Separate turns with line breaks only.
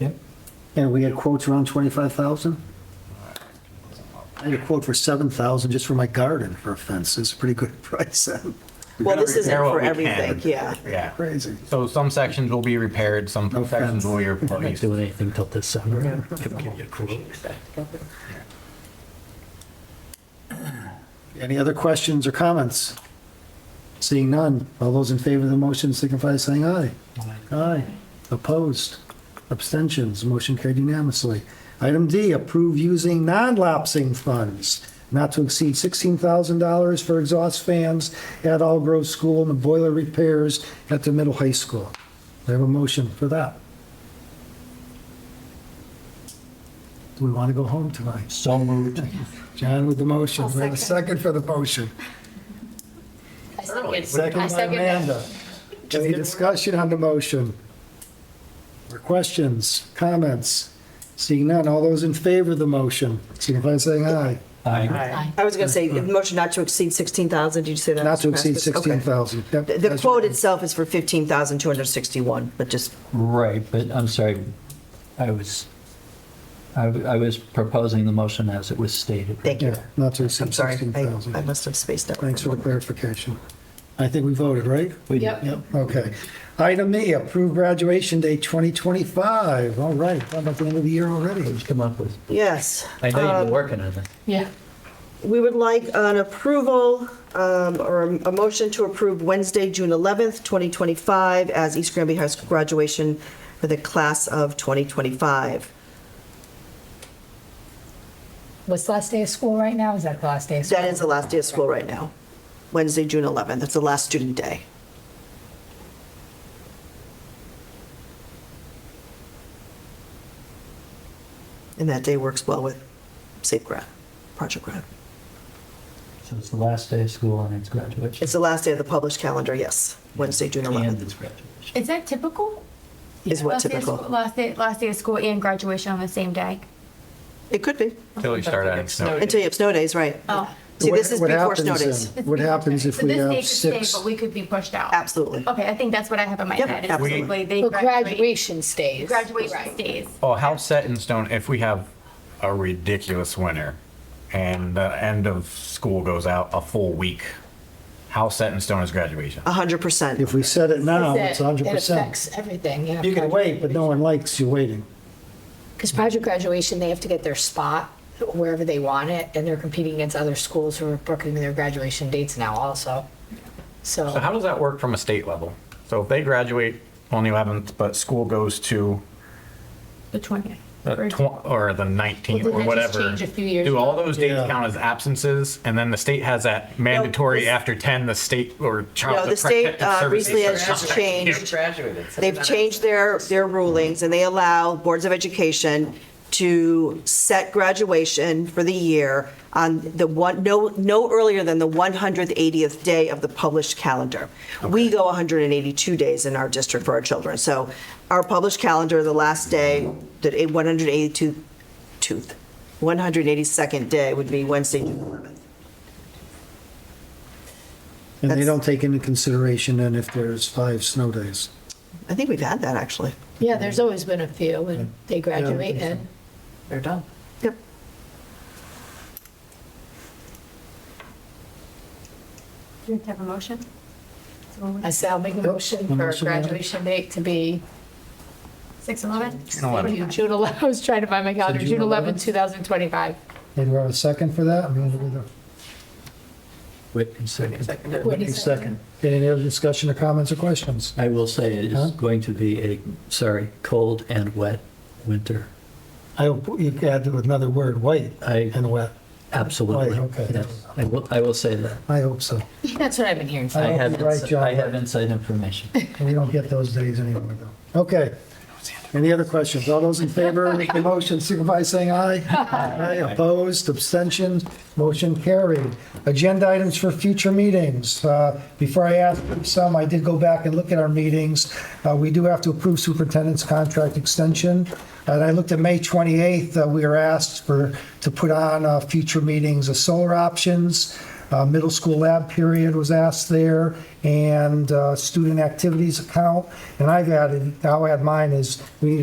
Yep.
And we had quotes around 25,000? I had a quote for 7,000 just for my garden for a fence. It's a pretty good price.
Well, this isn't
Repair what
for
we
everything,
can.
yeah.
Yeah.
Crazy.
So some sections will be repaired, some
No offense.
sections will be
I'm not
replaced.
doing anything till December. Give give you a quote.
Any other questions or comments? Seeing none, all those in favor of the motion signify by saying aye. Aye. Opposed? Abstentions? Motion carried unanimously. Item D, approve using non-lapsing funds not to exceed $16,000 for exhaust fans at All Grove School and the boiler repairs at the middle high school. Do I have a motion for that? Do we want to go home tonight?
So moved.
John with the motion. We have a second for the motion.
I second. I
Second by
second that.
Amanda. Any discussion on the motion? Or questions, comments? Seeing none, all those in favor of the motion, signify by saying aye.
Aye.
Aye. I was going to say, the motion not to exceed 16,000, did you say that?
Not to
Mr.
exceed
Vasquez? Okay.
16,000. Yep.
The- The quote itself is for 15,261, but just,
Right, but I'm sorry, I was, I w- I was proposing the motion as it was stated.
thank you.
Yeah, not to
I'm
exceed
sorry, I I
16,000.
must have spaced out.
Thanks for the clarification. I think we voted, right?
We did.
Yep.
Okay. Item E, approve graduation date 2025. All right, how about the end of the year already?
Come up with,
Yes.
I know you've
Um,
been working on it.
Yeah.
We would like an approval um, or a motion to approve Wednesday, June 11th, 2025, as East Granby High School graduation for the class of 2025.
What's the last day of school right now? Is that the last day of school?
That is the last day of school right now, Wednesday, June 11th. That's the last student day. And that day works well with Safe Grad, Project Grad.
So it's the last day of school and it's graduation.
It's the last day of the published calendar, yes, Wednesday, June
And
11th
it's graduation.
Is that typical?
is what
Last day of
typical.
school- Last day, last day of school and graduation on the same day?
It could be,
Until you start adding snow.
until you have snow days, right.
Oh.
See, this
What-
is
what
before snow
happens
days.
then? What happens if
So
we
this day
have
could stay,
six?
but we could be pushed out?
Absolutely.
Okay, I think that's what I have in my
Yep,
head. is
absolutely.
basically they
Well,
graduate-
graduation stays.
Graduation
Right.
stays.
Oh, how set in stone if we have a ridiculous winter and the end of school goes out a full week? How set in stone is graduation?
100%.
If we set it
Oh,
now,
That-
it's 100%.
It affects everything, yeah.
You can wait, but no one likes you waiting.
Because project graduation, they have to get their spot wherever they want it, and they're competing against other schools who are booking their graduation dates now also.
So
So,
how does that work from a state level? So if they graduate on the 11th, but school goes to
The 20th.
the tw- or the 19th
Well, did
or
that just
whatever.
change a few years
Do all
ago?
those dates
Yeah.
count as absences? And then the state has that mandatory
this-
after 10, the state or child.
No, the state
protective
uh,
services
recently
or
has just
something.
changed.
graduated. so
They've
that-
changed their, their rulings, and they allow boards of education to set graduation for the year on the one, no, no earlier than the 180th day of the published calendar. We go 182 days in our district for our children. So our published calendar, the last day, the eight- 182, tooth, 182nd day would be Wednesday, June 11th.
And they
That's-
don't take into consideration then if there's five snow days.
I think we've had that, actually.
yeah, there's always been a few, and they graduate and they're done.
Yep.
Do you have a motion?
I say I'll make a motion
A
for
motion, yeah.
graduation date to be
Six eleven?
What are you, June 11, I was trying to find my calendar,
June
June 11,
11th?
2025.
Hey, do we have a second for that?
Whitney seconded.
Whitney
Okay, Any other discussion or comments or questions?
I will say it
Huh?
is going to be a, sorry, cold and wet winter.
I, you could add another word, white
I-
and wet.
Absolutely.
Right, okay.
Yes, I will, I will say that.
I hope so.
That's what I've been hearing.
I
hope
have,
you're right,
ins-
John.
I have inside information.
We don't get those days anymore though. Okay. Any other questions? All those in favor of the motion signify by saying aye. Aye. Opposed, abstentions, motion carried. Agenda items for future meetings. Uh, Before I ask for some, I did go back and look at our meetings. Uh, We do have to approve superintendent's contract extension. And I looked at May 28th, uh, we were asked for, to put on uh, future meetings of solar options. Uh, Middle school lab period was asked there, and uh, student activities account. And I've added, I'll add mine is, we need